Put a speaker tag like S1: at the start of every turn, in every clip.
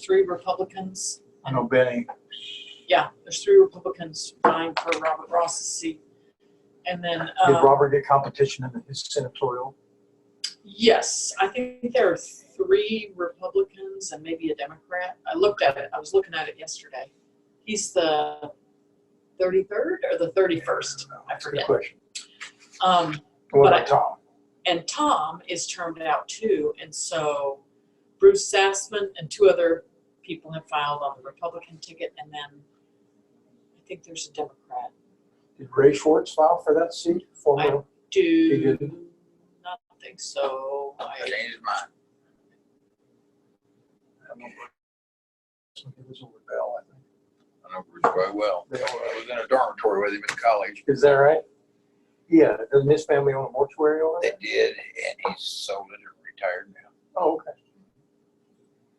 S1: three Republicans.
S2: I know Benny,
S1: Yeah, there's three Republicans vying for Robert Ross's seat. And then,
S2: did
S1: um,
S2: Robert get competition in his senatorial?
S1: yes, I think there are three Republicans and maybe a Democrat. I looked at it, I was looking at it yesterday. He's the thirty-third or the thirty-first, I
S2: Good
S1: forget.
S2: question.
S1: Um,
S2: What
S1: But I-
S2: about Tom?
S1: and Tom is termed out too, and so Bruce Sassman and two other people have filed on the Republican ticket, and then I think there's a Democrat.
S2: Did Ray Schwartz file for that seat? Former,
S1: Do
S2: didn't?
S1: not think so. I,
S3: Change his mind.
S2: I don't know. It was over Bell, I think.
S3: I know Bruce very well.
S2: Yeah.
S3: I was in a dormitory with him in college.
S2: Is that right? Yeah, doesn't his family own a mortuary over
S3: They
S2: there?
S3: did, and he's sold it and retired now.
S2: Oh, okay.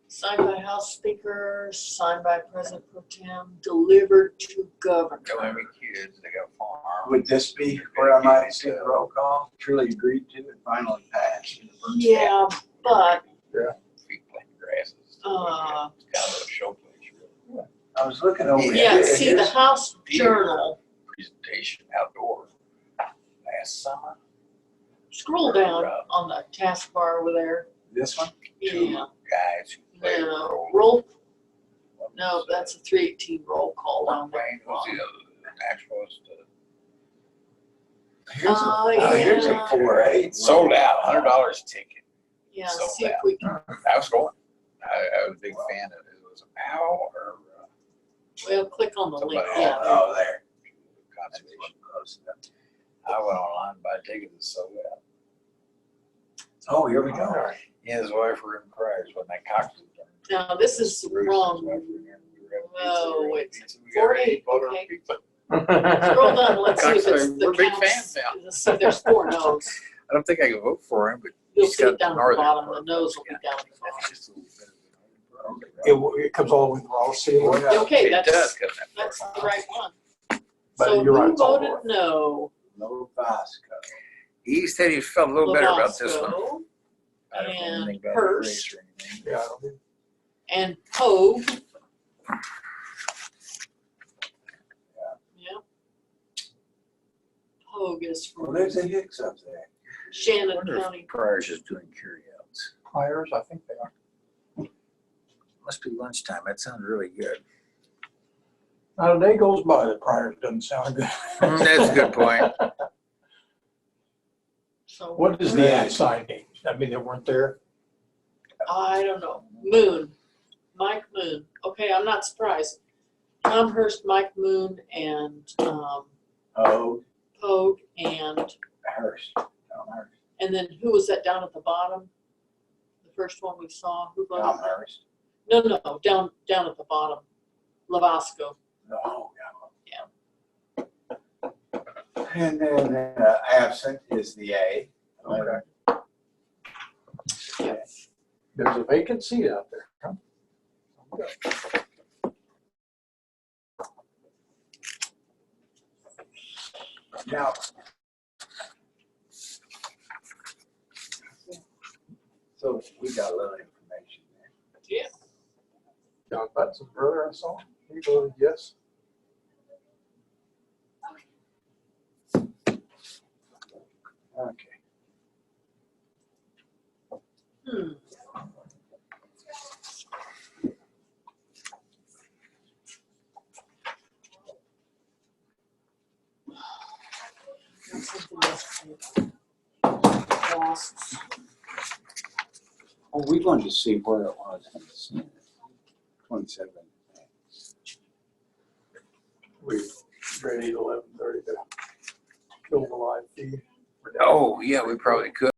S1: signed by House Speaker, signed by President Pro Tem, delivered to governor.
S3: Got how many kids, they got a farm.
S4: Would this be where I might see the roll call? Truly agreed to and finally passed.
S1: Yeah, but
S3: Feet planted grasses.
S1: Uh.
S3: It's Kind of a showplace, really.
S4: I was looking over.
S1: yeah,
S4: here,
S1: see
S4: and
S1: the
S4: this-
S1: House Journal,
S3: Presentation outdoor last summer.
S1: scroll down on the taskbar over there.
S4: This one?
S1: Yeah.
S3: Guys who played.
S1: No,
S3: role-
S1: roll, no, that's a three eighteen roll call on that.
S3: Wayne was the other naturalist. uh,
S4: Here's a-
S1: Oh,
S4: oh, Here's a
S1: yeah.
S4: four eight.
S3: Sold out, hundred dollars ticket.
S1: Yeah,
S3: So
S1: see if we can,
S3: I was going. I, I was a big fan of it. It was Powell or uh,
S1: well, click on the link,
S3: somebody.
S1: yeah. there.
S3: Oh, there. Conservation. I went online by tickets and sold out.
S4: Oh, here we
S2: All
S4: go.
S2: right.
S3: He and his wife were in Paris when that cocktail.
S1: Now, this is wrong. No, it's four eight, okay. Scroll down, let's see if it's
S3: Coxswain,
S1: the
S3: we're big
S1: counts.
S3: fans now.
S1: Let's see if there's four no's.
S3: I don't think I can vote for him, but
S1: You'll
S3: He's
S1: see it
S3: got
S1: down at the
S3: northern
S1: bottom, the
S3: part.
S1: nose will be down at the
S3: that's
S1: bottom.
S3: just a little bit of
S2: It, w- it comes all the way to Raleigh City.
S4: Boy,
S2: limits.
S4: yeah.
S1: Okay,
S3: It does
S1: that's,
S3: come that far.
S1: that's the right one.
S2: But
S1: So
S2: you're right,
S1: who
S2: it's all
S1: voted
S2: north.
S1: no?
S4: No vice
S3: He said he felt a little better about this one.
S1: Lovasco
S3: I don't know
S1: and
S3: anything about the
S1: Hearst.
S3: race or anything.
S2: Yeah, I don't think-
S1: And Pogue. Yeah. Pogue is
S4: Well,
S1: from
S4: there's a Hicks up there.
S3: I
S1: Shannon
S3: wonder
S1: County.
S3: if Pryor's is doing carryouts.
S2: Myers, I think they are.
S3: Must be lunchtime. That sounds really good.
S2: Now, the day goes by that Pryor doesn't sound good.
S3: Mm, That's a good point.
S1: So
S2: What is the ad signing? I mean, they weren't there.
S1: I don't know. Moon, Mike Moon. Okay, I'm not surprised. Tom Hurst, Mike Moon, and um,
S4: Oh,
S1: Pogue, and
S4: Hearst. Tom Hearst.
S1: and then who was that down at the bottom? The first one we saw. Who
S4: Tom
S1: voted?
S4: Hearst.
S1: No, no, down down at the bottom. Lavasco.
S4: Oh, yeah. And then uh, absent is the A.
S2: Okay. There's a vacant seat out there. huh?
S4: Now, so we got a little information there.
S1: Yeah.
S2: John Butson's brother, I saw. He voted yes.
S4: Okay.
S1: Hmm. Got something else to do. Lost.
S4: Well, we wanted Oh, to see where it was. in the Senate. Twenty-seven.
S2: We ready at eleven thirty to kill the live feed.
S3: Oh, yeah, we probably could.